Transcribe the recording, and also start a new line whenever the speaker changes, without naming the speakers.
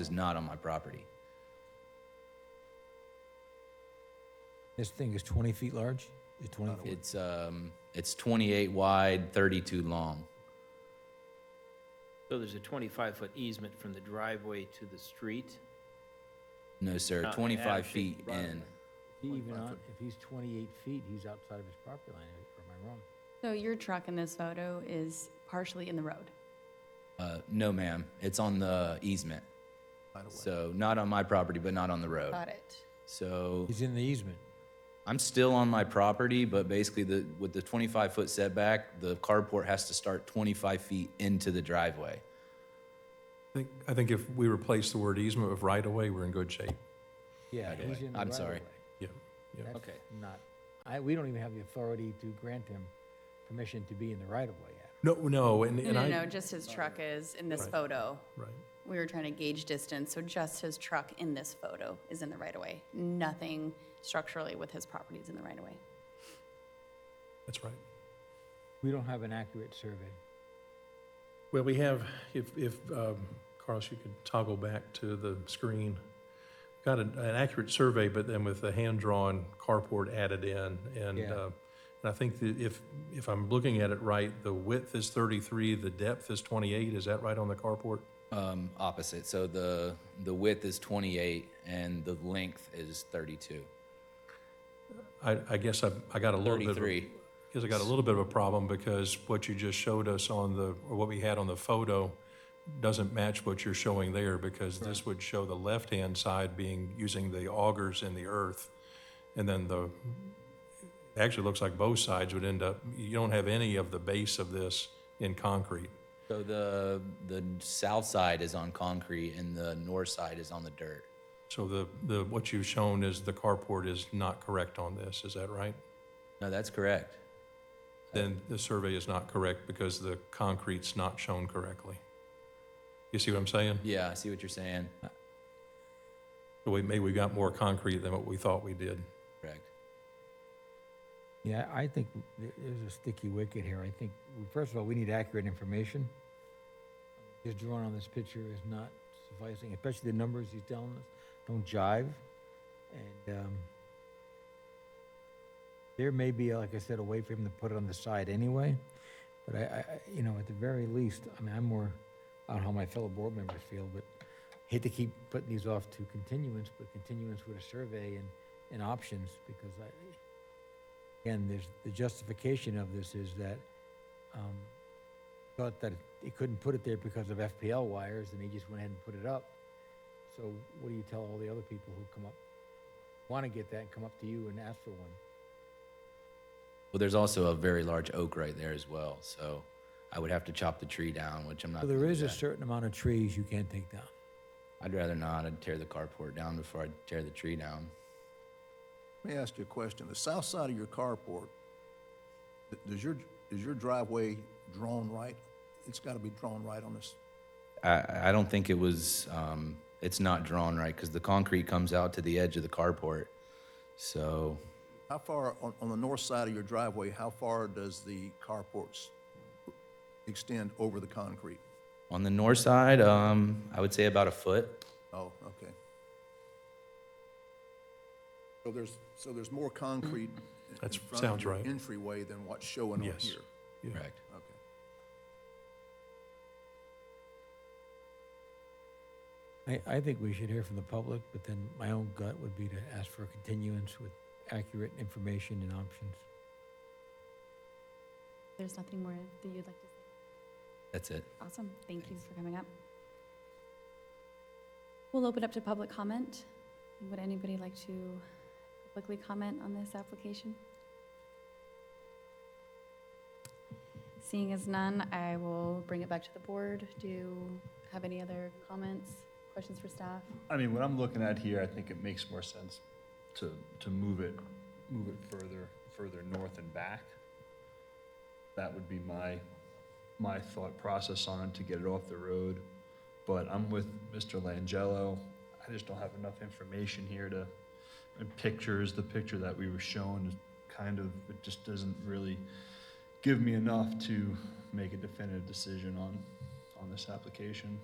is not on my property.
This thing is 20 feet large? Is it 20 feet?
It's, um, it's 28 wide, 32 long.
So there's a 25-foot easement from the driveway to the street?
No, sir,
Not an
25
actually
feet
right
in.
away.
He even on, if he's 28 feet, he's outside of his property line, or am I wrong?
So your truck in this photo is partially in the road.
Uh, no, ma'am, it's on the easement. So not on my property, but not on the road.
it.
So
He's in the easement.
I'm still on my property, but basically the, with the 25-foot setback, the carport has to start 25 feet into the driveway.
I think, I think if we replace the word easement with right-of-way, we're in good shape.
Yeah, he's in the
I'm sorry.
right-of-way.
Yeah, yeah.
That's
Okay.
Not, I, we don't even have the authority to grant him permission to be in the right-of-way yet.
No, no, and,
No,
and
no,
I,
no, just his truck is in this photo.
right.
We were trying to gauge distance, so just his truck in this photo is in the right of way. Nothing structurally with his property is in the right of way.
That's right.
We don't have an accurate survey.
Well, we have, if, if, um, Carlos, you could toggle back to the screen. Got an, an accurate survey, but then with a hand-drawn carport added in, and,
Yeah.
uh, and I think that if, if I'm looking at it right, the width is thirty-three, the depth is twenty-eight, is that right on the carport?
Um, opposite, so the, the width is 28 and the length is 32,
I, I guess I, I got a little bit of. a-
33.
Because I got a little bit of a problem because what you just showed us on the, or what we had on the photo doesn't match what you're showing there because this would show the left-hand side being, using the augers in the earth. And then the, it actually looks like both sides would end up, you don't have any of the base of this in concrete.
So the, the south side is on concrete and the north side is on the dirt.
So the, the, what you've shown is the carport is not correct on this, is that right?
No, that's correct.
then the survey is not correct because the concrete's not shown correctly. You see what I'm saying?
Yeah, I see what you're saying.
So we, maybe we got more concrete than what we thought we did.
Correct.
Yeah, I think th- there's a sticky wicket here. I think, well, first of all, we need accurate information. His drawing on this picture is not sufficing, especially the numbers he's telling us don't jive. And um, there may be, like I said, a way for him to put it on the side anyway. But I, I, I- you know, at the very least, I mean, I'm more, I don't know how my fellow board members feel, but hate to keep putting these off to continuance, but continuance with a survey and, and options because I, Again, there's, the justification of this is that, um, thought that he couldn't put it there because of FPL wires, and he just went ahead and put it up. So what do you tell all the other people who come up, wanna get that and come up to you and ask for one?
Well, there's also a very large oak right there as well, so I would have to chop the tree down, which I'm not.
So
gonna
there
do
is a
that.
certain amount of trees you can't take down.
I'd rather not. I'd tear the carport down before I tear the tree down.
Let me ask you a question. The south side of your carport, th- does your, is your driveway drawn right? It's got to be drawn right on this.
I, I don't think it was. Um, it's not drawn right because the concrete comes out to the edge of the carport. So
How far, on, on the north side of your driveway, how far does the carports extend over the concrete?
on the north side, um, I would say about a foot.
Oh, okay. So there's, so there's more concrete in- in
That's-
front of
sounds
your
right.
entryway than what's showing on
Yes.
here?
Yeah.
Correct.
Okay.
I, I think we should hear from the public, but then my own gut would be to ask for a continuance with accurate information and options.
There's nothing more that you'd like to say?
That's it.
Awesome, thank you for coming up. We'll open up to public comment. Would anybody like to publicly comment on this application? Seeing as none, I will bring it back to the board. Do you have any other comments, questions for staff?
I mean, what I'm looking at here, I think it makes more sense to, to move it, move it further, further north and back. That would be my, my thought process on it, to get it off the road. But I'm with Mr. Langello. I just don't have enough information here to, and pictures, the picture that we were shown is kind of, it just doesn't really give me enough to make a definitive decision on, on this application.